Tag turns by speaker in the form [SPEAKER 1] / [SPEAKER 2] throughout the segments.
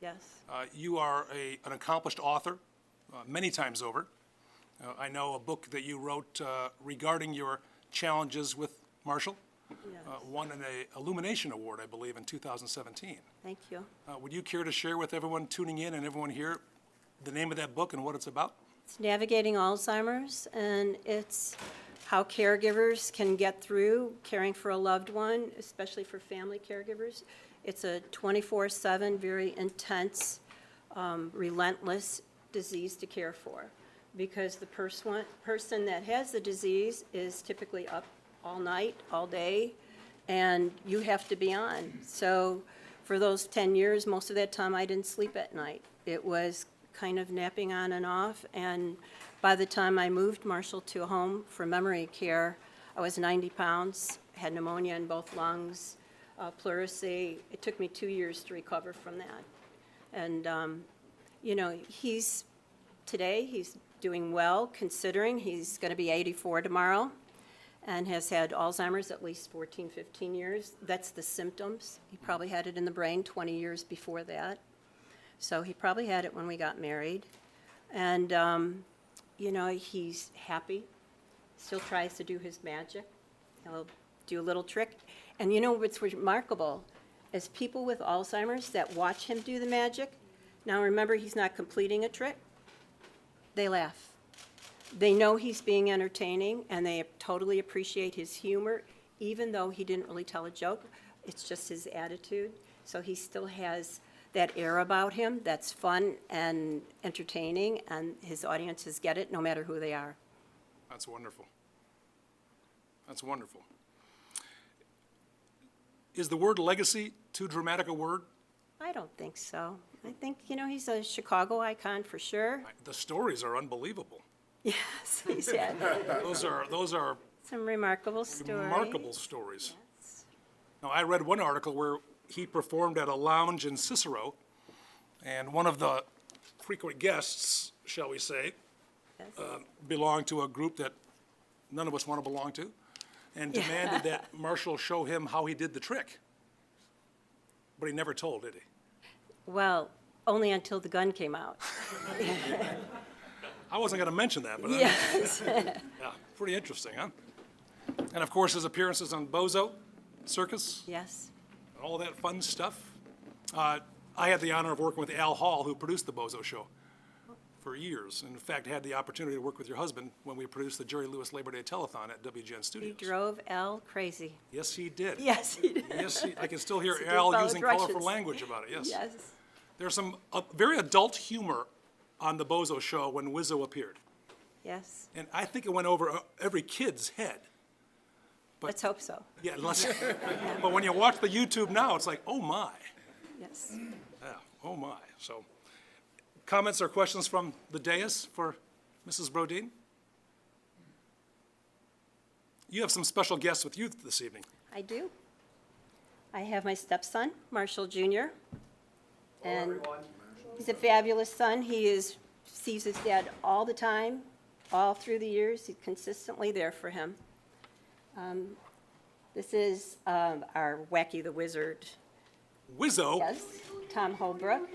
[SPEAKER 1] Yes.
[SPEAKER 2] Uh, You are a, an accomplished author, uh, many times over. Uh, I know a book that you wrote uh, regarding your challenges with Marshall. uh, Won an uh, Illumination Award, I believe, in 2017.
[SPEAKER 1] Thank you.
[SPEAKER 2] Uh, Would you care to share with everyone tuning in and everyone here the name of that book and what it's about?
[SPEAKER 1] It's navigating Alzheimer's, and it's how caregivers can get through caring for a loved one, especially for family caregivers. It's a 24/7, very intense, um, relentless disease to care for, because the person, person that has the disease is typically up all night, all day, and you have to be on. So for those 10 years, most of that time, I didn't sleep at night. It was kind of napping on and off, and by the time I moved Marshall to a home for memory care, I was 90 pounds, had pneumonia in both lungs, uh, pleurisy. It took me two years to recover from that. And, um, you know, he's, today, he's doing well, considering he's going to be 84 tomorrow and has had Alzheimer's at least 14, 15 years. That's the symptoms. He probably had it in the brain 20 years before that. So he probably had it when we got married. And, um, you know, he's happy, still tries to do his magic. He'll do a little trick. And you know what's remarkable is people with Alzheimer's that watch him do the magic, now remember, he's not completing a trick, they laugh. They know he's being entertaining, and they totally appreciate his humor, even though he didn't really tell a joke. It's just his attitude. So he still has that air about him that's fun and entertaining, and his audiences get it, no matter who they are.
[SPEAKER 2] That's wonderful. That's wonderful. Is the word legacy too dramatic a word?
[SPEAKER 1] I don't think so. I think, you know, he's a Chicago icon for sure.
[SPEAKER 2] I- The stories are unbelievable.
[SPEAKER 1] Yes, he's had
[SPEAKER 2] Those are, those are
[SPEAKER 1] some remarkable stories.
[SPEAKER 2] remarkable stories. Now, I read one article where he performed at a lounge in Cicero, and one of the frequent guests, shall we say, uh,
[SPEAKER 1] Yes.
[SPEAKER 2] belonged to a group that none of us want to belong to, and demanded that Marshall show him how he did the trick. But he never told, did he?
[SPEAKER 1] Well, only until the gun came out.
[SPEAKER 2] I wasn't going to mention that, but I-
[SPEAKER 1] Yes.
[SPEAKER 2] yeah, pretty interesting, huh? And of course, his appearances on Bozo Circus.
[SPEAKER 1] Yes.
[SPEAKER 2] and all that fun stuff. Uh, I had the honor of working with Al Hall, who produced The Bozo Show for years. and In fact, had the opportunity to work with your husband when we produced the Jerry Lewis Labor Day Telethon at WGN
[SPEAKER 1] He
[SPEAKER 2] Studios.
[SPEAKER 1] drove Al crazy.
[SPEAKER 2] Yes, he did.
[SPEAKER 1] Yes, he did.
[SPEAKER 2] Yes, he- I can still hear
[SPEAKER 1] He did
[SPEAKER 2] Al
[SPEAKER 1] follow
[SPEAKER 2] using colorful
[SPEAKER 1] directions.
[SPEAKER 2] language about it, yes.
[SPEAKER 1] Yes.
[SPEAKER 2] There's some uh, very adult humor on The Bozo Show when Wizzo appeared.
[SPEAKER 1] Yes.
[SPEAKER 2] And I think it went over uh, every kid's head.
[SPEAKER 1] Let's hope so.
[SPEAKER 2] Yeah, unless, but when you watch the YouTube now, it's like, oh my.
[SPEAKER 1] Yes.
[SPEAKER 2] Yeah, oh my. So, comments or questions from the dais for Mrs. Brodeen? You have some special guests with you this evening.
[SPEAKER 1] I do. I have my stepson, Marshall Jr. and He's a fabulous son. He is, sees his dad all the time, all through the years. He's consistently there for him. Um, This is um, our Wacky the Wizard,
[SPEAKER 2] Wizzo,
[SPEAKER 1] yes, Tom Holbrook.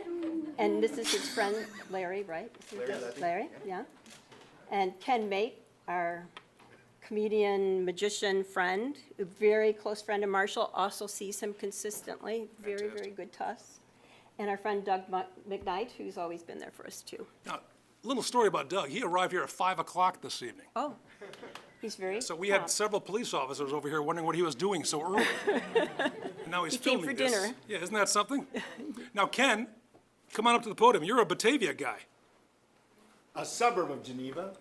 [SPEAKER 1] And this is his friend Larry, right? This is Larry, yeah. And Ken Mate, our comedian, magician friend, a very close friend of Marshall, also sees him consistently. Very, very good to us. And our friend Doug Mu- McKnight, who's always been there for us too.
[SPEAKER 2] now, little story about Doug. He arrived here at 5 o'clock this evening.
[SPEAKER 1] Oh, he's very.
[SPEAKER 2] So we had
[SPEAKER 1] prompt.
[SPEAKER 2] several police officers over here wondering what he was doing so early. And now he's
[SPEAKER 1] He came
[SPEAKER 2] filming
[SPEAKER 1] for
[SPEAKER 2] this.
[SPEAKER 1] dinner.
[SPEAKER 2] Yeah, isn't that something? Now, Ken, come on up to the podium. You're a Batavia guy.
[SPEAKER 3] A suburb of Geneva.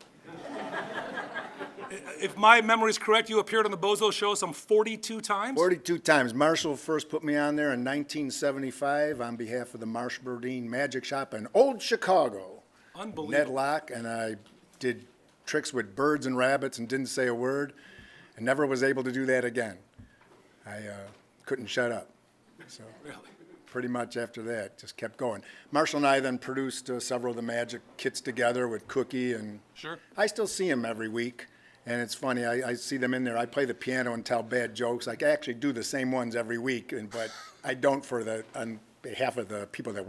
[SPEAKER 2] If my memory is correct, you appeared on the Bozo Show some 42 times?
[SPEAKER 3] 42 times. Marshall first put me on there in 1975 on behalf of the Marsh Burdine Magic Shop in Old Chicago. Ned
[SPEAKER 2] Unbelievable.
[SPEAKER 3] Locke and I did tricks with birds and rabbits and didn't say a word and never was able to do that again. I uh, couldn't shut up. So
[SPEAKER 2] Really?
[SPEAKER 3] pretty much after that, just kept going. Marshall and I then produced uh, several of the magic kits together with Cookie and
[SPEAKER 2] Sure.
[SPEAKER 3] I still see him every week, and it's funny. I, I see them in there. I play the piano and tell bad jokes. I actually do the same ones every week, and but I don't for the on behalf of the people that work.